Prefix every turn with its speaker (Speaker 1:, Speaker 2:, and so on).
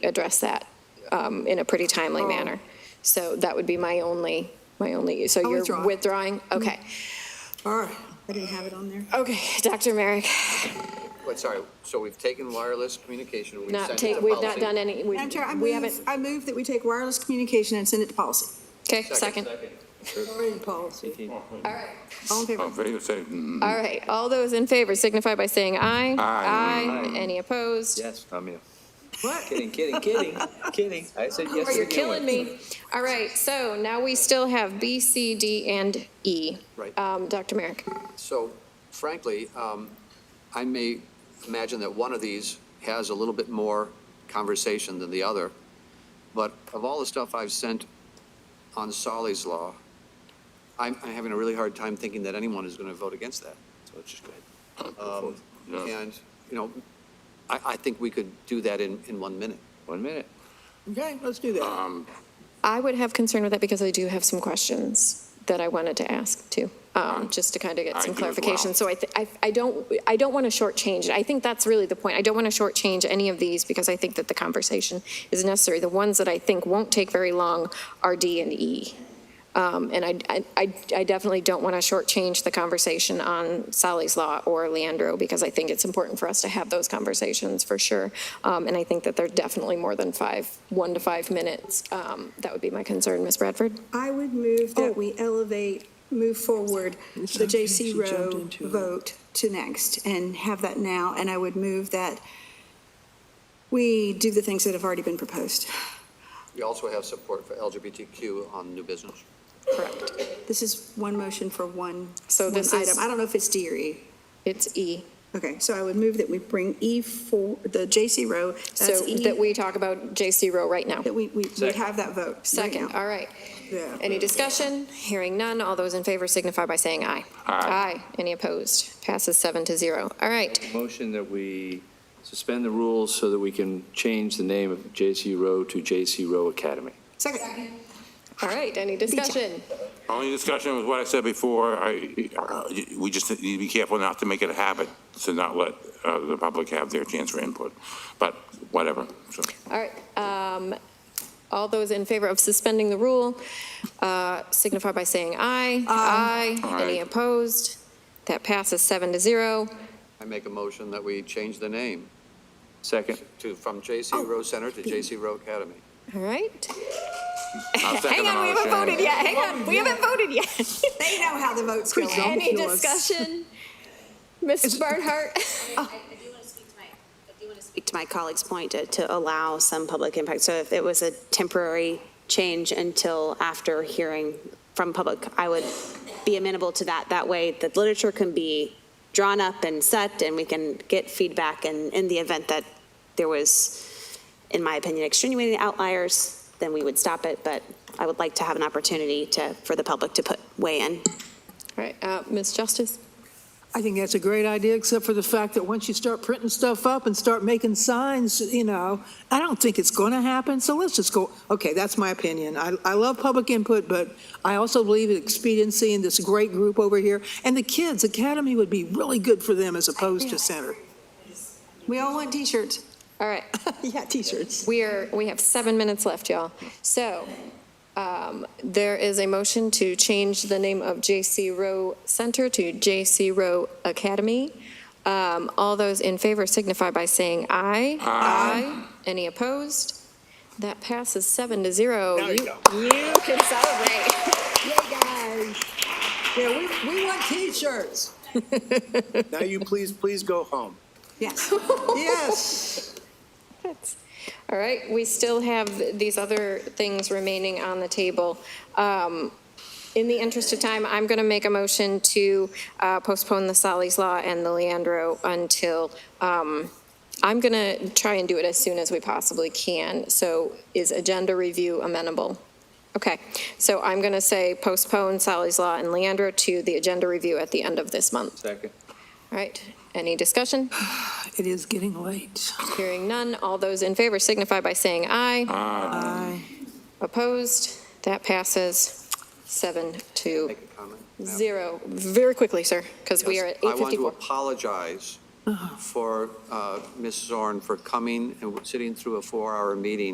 Speaker 1: address that um, in a pretty
Speaker 2: Oh.
Speaker 1: timely manner. So that would be my only, my only, so you're
Speaker 2: withdraw.
Speaker 1: withdrawing?
Speaker 2: Mm-hmm.
Speaker 1: Okay.
Speaker 2: All right. I didn't have it on there.
Speaker 1: Okay, Dr. Merrick,
Speaker 3: Wait, sorry, so we've taken wireless communication, we've sent
Speaker 1: not
Speaker 3: it to
Speaker 1: take,
Speaker 3: policy.
Speaker 1: we've not done any, we
Speaker 2: Madam Chair, I
Speaker 1: we haven't,
Speaker 2: move, I move that we take wireless communication and send it to policy.
Speaker 1: okay, second.
Speaker 2: Already policy. All in
Speaker 4: All
Speaker 2: favor?
Speaker 4: in favor, say, mm,
Speaker 1: All right, all those in favor signify by saying aye.
Speaker 4: Aye.
Speaker 1: Aye, any opposed?
Speaker 5: Yes, I'm in.
Speaker 2: What?
Speaker 5: Kidding, kidding, kidding, kidding. I said yes.
Speaker 1: Oh,
Speaker 5: to
Speaker 1: you're
Speaker 5: begin
Speaker 1: killing
Speaker 5: with.
Speaker 1: me. All right, so now we still have B, C, D, and E.
Speaker 3: Right.
Speaker 1: Um, Dr. Merrick?
Speaker 3: So frankly, um, I may imagine that one of these has a little bit more conversation than the other, but of all the stuff I've sent on Solly's Law, I'm, I'm having a really hard time thinking that anyone is going to vote against that. So let's just go ahead. Um,
Speaker 4: Yeah.
Speaker 3: And, you know, I, I think we could do that in, in one minute.
Speaker 5: One minute.
Speaker 2: Okay, let's do
Speaker 5: Uh,
Speaker 2: that.
Speaker 1: I would have concern with that because I do have some questions that I wanted to ask too, um, just to kind of
Speaker 4: I
Speaker 1: get some
Speaker 4: do as well.
Speaker 1: clarification. So I, thi- I, I don't, I don't want to shortchange it. I think that's really the point. I don't want to shortchange any of these because I think that the conversation is necessary. The ones that I think won't take very long are D and E. Um, and I, I- I, I definitely don't want to shortchange the conversation on Sally's Law or Leandro, because I think it's important for us to have those conversations for sure. Um, and I think that they're definitely more than five, one to five minutes. Um, that would be my concern, Ms. Bradford.
Speaker 2: I would move that we elevate, move forward the JC Rowe vote to next and have that now. And I would move that we do the things that have already been proposed.
Speaker 3: We also have support for LGBTQ on new business.
Speaker 1: Correct.
Speaker 2: This is one motion for one,
Speaker 1: So
Speaker 2: one
Speaker 1: this is-
Speaker 2: item. I don't know if it's D or E.
Speaker 1: It's E.
Speaker 2: Okay, so I would move that we bring E for, the JC Rowe,
Speaker 1: So
Speaker 2: that's E,
Speaker 1: that we talk about J.C. Rowe right now.
Speaker 2: that we, we we have that vote. right
Speaker 1: Second,
Speaker 2: now.
Speaker 1: all right.
Speaker 2: Yeah.
Speaker 1: Any discussion? Hearing none. All those in favor signify by saying aye.
Speaker 4: Aye.
Speaker 1: Aye. Any opposed? Passes seven to zero. All right.
Speaker 5: Motion that we suspend the rules so that we can change the name of JC Rowe to JC Rowe Academy.
Speaker 2: Second.
Speaker 1: All right. Any discussion?
Speaker 4: only discussion was what I said before, I, uh, we just need to be careful not to make it a habit to not let uh, the public have their chance for input, but whatever, so.
Speaker 1: All right. um, All those in favor of suspending the rule uh, signify by saying aye. Aye. Any
Speaker 4: Aye.
Speaker 1: opposed? That passes seven to zero.
Speaker 3: I make a motion that we change the name
Speaker 5: Second.
Speaker 3: to, from
Speaker 1: Oh.
Speaker 3: J.C. Rowe Center to J.C. Rowe Academy.
Speaker 1: All right.
Speaker 4: I'll
Speaker 1: Hang
Speaker 4: second the
Speaker 1: on, we haven't
Speaker 4: motion.
Speaker 1: voted yet. Hang on, we haven't voted yet.
Speaker 2: They know how the vote's going.
Speaker 1: Any discussion? Ms. Barnhart?
Speaker 6: I I do want to speak to my, I do want to speak Oh. to my colleague's point to, to allow some public impact. So if it was a temporary change until after hearing from public, I would be amenable to that. That way, the literature can be drawn up and set, and we can get feedback. And in the event that there was, in my opinion, extenuating outliers, then we would stop it. But I would like to have an opportunity to, for the public to put, weigh in.
Speaker 1: All right, uh, Ms. Justice?
Speaker 7: I think that's a great idea, except for the fact that once you start printing stuff up and start making signs, you know, I don't think it's going to happen, so let's just go, okay, that's my opinion. I, I love public input, but I also believe in expediency and this great group over here. And the kids, Academy would be really good for them as opposed to Center.
Speaker 2: We all want t-shirts.
Speaker 1: All right,
Speaker 7: Yeah, t-shirts.
Speaker 1: we are, we have seven minutes left, y'all. So um, there is a motion to change the name of J.C. Rowe Center to J.C. Rowe Academy. Um, All those in favor signify by saying aye. Aye. Any opposed? That passes seven to zero. There you go. You can celebrate.
Speaker 7: Yay, guys. Yeah, we, we want t-shirts.
Speaker 8: Now you please, please go home.
Speaker 2: Yes.
Speaker 7: Yes.
Speaker 1: That's- All right, we still have these other things remaining on the table. Um, In the interest of time, I'm going to make a motion to uh, postpone the Sally's Law and the Leandro until, um, I'm going to try and do it as soon as we possibly can. So is agenda review amenable? Okay, so I'm going to say postpone Sally's Law and Leandro to the agenda review at the end of this month.
Speaker 5: Second.
Speaker 1: All right, any discussion?
Speaker 7: It is getting late.
Speaker 1: Hearing none, all those in favor signify by saying aye.
Speaker 7: Aye.
Speaker 1: Opposed? That passes seven to
Speaker 3: Make a comment? Madam
Speaker 1: zero. Very quickly, sir, because we are
Speaker 3: Yes,
Speaker 1: at
Speaker 3: I want to
Speaker 1: 8:54.
Speaker 3: apologize for uh, Ms. Zorn for coming and sitting through a four-hour meeting